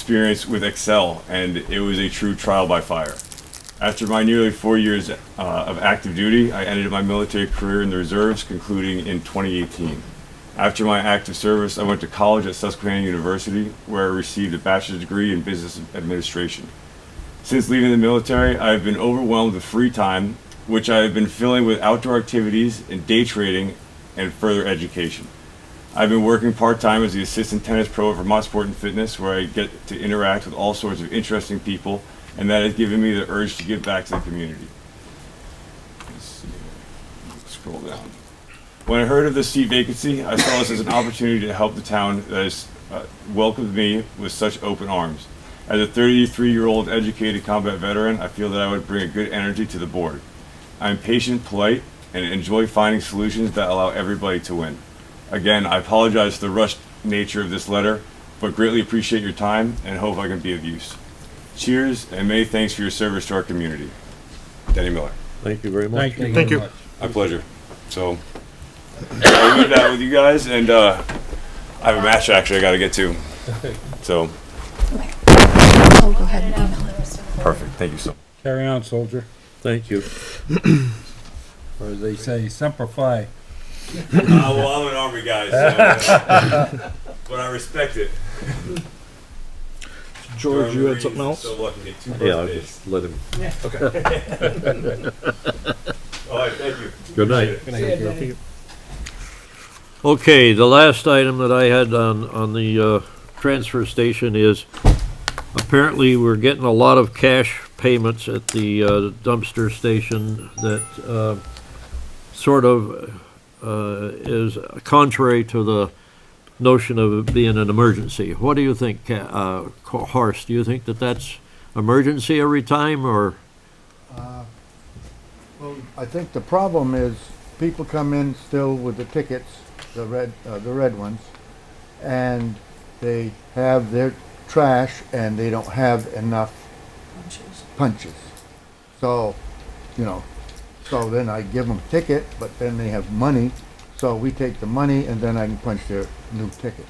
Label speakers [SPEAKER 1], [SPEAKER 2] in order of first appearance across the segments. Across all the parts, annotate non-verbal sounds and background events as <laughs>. [SPEAKER 1] experience with Excel, and it was a true trial by fire. After my nearly four years uh, of active duty, I ended my military career in the reserves, concluding in 2018. After my active service, I went to college at Susquehanna University, where I received a bachelor's degree in business administration. Since leaving the military, I have been overwhelmed with free time, which I have been filling with outdoor activities and day trading and further education. I've been working part time as the assistant tennis pro at Vermont Sport and Fitness, where I get to interact with all sorts of interesting people, and that has given me the urge to give back to the community. Let's see. Scroll down. When I heard of the seat vacancy, I saw this as an opportunity to help the town that has uh, welcomed me with such open arms. As a 33 year old educated combat veteran, I feel that I would bring a good energy to the board. I'm patient, polite, and enjoy finding solutions that allow everybody to win. Again, I apologize for the rushed nature of this letter, but greatly appreciate your time and hope I can be of use. Cheers and many thanks for your service to our community. Denny Miller.
[SPEAKER 2] Thank you very much.
[SPEAKER 3] you.
[SPEAKER 4] Thank you.
[SPEAKER 3] very much.
[SPEAKER 1] My pleasure. So I'll leave that with you guys, and uh, I have a match actually I got to get to. So
[SPEAKER 5] Oh, go ahead and email it.
[SPEAKER 1] perfect. Thank you so. much.
[SPEAKER 3] Carry on, soldier.
[SPEAKER 2] Thank you.
[SPEAKER 3] Or as they say, simplify.
[SPEAKER 1] Uh, well, I'm an army guy, so, uh, but I respect it.
[SPEAKER 4] George, you
[SPEAKER 1] German
[SPEAKER 4] had something
[SPEAKER 1] is
[SPEAKER 4] else?
[SPEAKER 1] So lucky to get two
[SPEAKER 2] Yeah, I'll
[SPEAKER 1] birthdays.
[SPEAKER 2] just let him.
[SPEAKER 1] All right, thank you.
[SPEAKER 2] Good night.
[SPEAKER 4] Thank you.
[SPEAKER 2] Okay, the last item that I had on, on the, uh, transfer station is apparently we're getting a lot of cash payments at the uh, dumpster station that, uh, sort of, uh, is contrary to the notion of it being an emergency. What do you think, Ca- uh, Co- Horst? Do you think that that's emergency every time or?
[SPEAKER 6] Well, I think the problem is people come in still with the tickets, the red, uh, the red ones, and they have their trash and they don't have enough punches. So, you know, so then I give them a ticket, but then they have money, so we take the money and then I can punch their new ticket.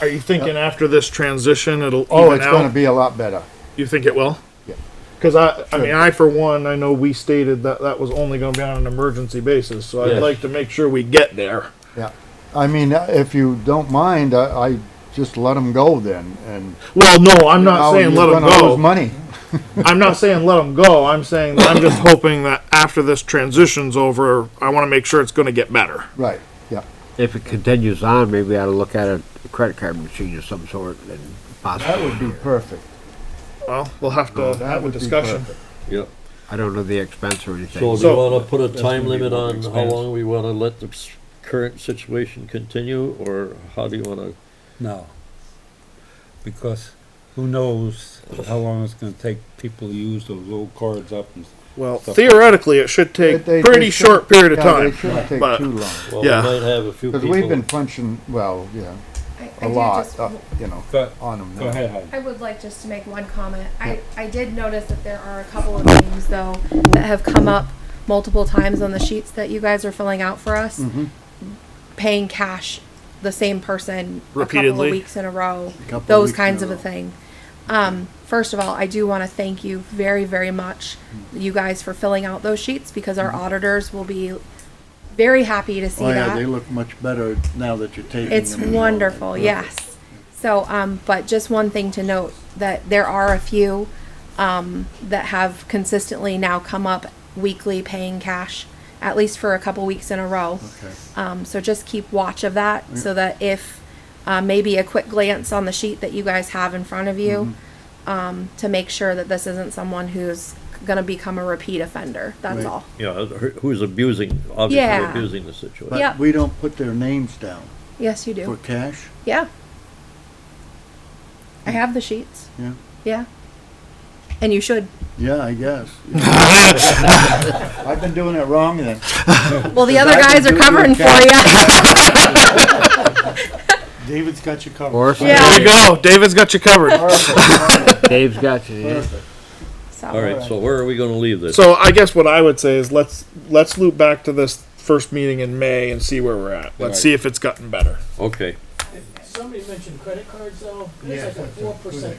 [SPEAKER 4] Are you thinking after this transition, it'll
[SPEAKER 6] Oh,
[SPEAKER 4] even
[SPEAKER 6] it's gonna
[SPEAKER 4] out?
[SPEAKER 6] be a lot better.
[SPEAKER 4] You think it will?
[SPEAKER 6] Yeah.
[SPEAKER 4] Cause I, I
[SPEAKER 6] Sure.
[SPEAKER 4] mean, I for one, I know we stated that that was only gonna be on an emergency basis, so I'd
[SPEAKER 2] Yes.
[SPEAKER 4] like to make sure we get there.
[SPEAKER 6] Yeah. I mean, uh, if you don't mind, I, I just let them go then and.
[SPEAKER 4] Well, no, I'm
[SPEAKER 6] Now
[SPEAKER 4] not saying
[SPEAKER 6] you're
[SPEAKER 4] let them
[SPEAKER 6] gonna lose
[SPEAKER 4] go.
[SPEAKER 6] Money.
[SPEAKER 4] I'm not saying let them go. I'm saying that
[SPEAKER 6] <laughs>
[SPEAKER 4] I'm just hoping that after this transition's over, I wanna make sure it's gonna get better.
[SPEAKER 6] Right, yeah.
[SPEAKER 7] if it continues on, maybe we ought to look at a credit card machine of some sort and
[SPEAKER 6] That
[SPEAKER 7] possibly.
[SPEAKER 6] would be perfect.
[SPEAKER 4] Well, we'll have to
[SPEAKER 6] That
[SPEAKER 4] have a
[SPEAKER 6] would be
[SPEAKER 4] discussion.
[SPEAKER 6] perfect.
[SPEAKER 2] Yep.
[SPEAKER 7] I don't know the expense or
[SPEAKER 2] So
[SPEAKER 7] anything.
[SPEAKER 2] do you
[SPEAKER 4] So-
[SPEAKER 2] wanna put a time
[SPEAKER 3] gonna be
[SPEAKER 2] limit
[SPEAKER 3] more
[SPEAKER 2] on how
[SPEAKER 3] expensive.
[SPEAKER 2] long we wanna let the s- current situation continue, or how do you wanna?
[SPEAKER 3] No. Because who knows how long it's gonna take people to use those old cards up and.
[SPEAKER 4] Well, theoretically, it should take
[SPEAKER 6] They- they-
[SPEAKER 4] pretty
[SPEAKER 6] they
[SPEAKER 4] short
[SPEAKER 6] shouldn't-
[SPEAKER 4] period of
[SPEAKER 6] yeah,
[SPEAKER 4] time.
[SPEAKER 6] They shouldn't take
[SPEAKER 4] but-
[SPEAKER 6] too long,
[SPEAKER 2] Well, we
[SPEAKER 4] Yeah.
[SPEAKER 2] might have a few
[SPEAKER 6] because we've been
[SPEAKER 2] people.
[SPEAKER 6] punching, well, yeah,
[SPEAKER 5] I- I
[SPEAKER 6] a
[SPEAKER 5] did
[SPEAKER 6] lot,
[SPEAKER 5] just-
[SPEAKER 6] uh, you know,
[SPEAKER 3] But,
[SPEAKER 6] on them.
[SPEAKER 3] go ahead, Heidi.
[SPEAKER 5] I would like just to make one comment. I, I did notice that there are a couple of names though that have come up multiple times on the sheets that you guys are filling out for us. Paying cash, the same person a couple
[SPEAKER 4] Repeatedly.
[SPEAKER 5] of weeks in a row,
[SPEAKER 7] couple of
[SPEAKER 5] those
[SPEAKER 7] weeks in
[SPEAKER 5] kinds
[SPEAKER 7] a
[SPEAKER 5] of a
[SPEAKER 7] row.
[SPEAKER 5] thing. Um, first of all, I do want to thank you very, very much, you guys, for filling out those sheets because our auditors will be very happy to see
[SPEAKER 8] Oh, yeah,
[SPEAKER 5] that.
[SPEAKER 8] they look much better now that you're taking them.
[SPEAKER 5] It's
[SPEAKER 8] and all that.
[SPEAKER 5] wonderful, yes. So, um, but just one thing to note, that there are a few, um, that have consistently now come up weekly paying cash, at least for a couple weeks in a row.
[SPEAKER 8] Okay. Mm.
[SPEAKER 5] Um, so just keep watch of that, so that if, uh, maybe a quick glance on the sheet that you guys have in front of you,
[SPEAKER 8] Mm-hmm.
[SPEAKER 5] um, to make sure that this isn't someone who's gonna become a repeat offender, that's
[SPEAKER 8] Right.
[SPEAKER 5] all.
[SPEAKER 2] Yeah, who- who's abusing, obviously
[SPEAKER 5] Yeah.
[SPEAKER 2] abusing the situation.
[SPEAKER 5] Yeah.
[SPEAKER 8] But we don't put their names down
[SPEAKER 5] Yes, you
[SPEAKER 8] for
[SPEAKER 5] do,
[SPEAKER 8] cash,
[SPEAKER 5] yeah. I have the sheets.
[SPEAKER 8] yeah?
[SPEAKER 5] Yeah. And
[SPEAKER 8] <laughs>
[SPEAKER 5] you should.
[SPEAKER 8] Yeah, I guess. I've been doing it wrong then.
[SPEAKER 5] Well, the other
[SPEAKER 8] I can
[SPEAKER 5] guys
[SPEAKER 8] do
[SPEAKER 5] are
[SPEAKER 8] it
[SPEAKER 5] covering
[SPEAKER 8] with
[SPEAKER 5] for
[SPEAKER 8] cash.
[SPEAKER 5] you.
[SPEAKER 8] David's got you covered.
[SPEAKER 7] Or
[SPEAKER 4] There you
[SPEAKER 5] <laughs> Yeah.
[SPEAKER 4] go. David's got you covered.
[SPEAKER 7] Dave's got you.
[SPEAKER 5] So,
[SPEAKER 2] All right, so where are we gonna leave this?
[SPEAKER 4] So I guess what I would say is let's let's loop back to this first meeting in May and see where we're at. Let's see if it's gotten better.
[SPEAKER 2] Okay,
[SPEAKER 9] Somebody mentioned credit cards though. There's
[SPEAKER 8] Yeah,
[SPEAKER 9] like a
[SPEAKER 8] that's a-
[SPEAKER 9] four percent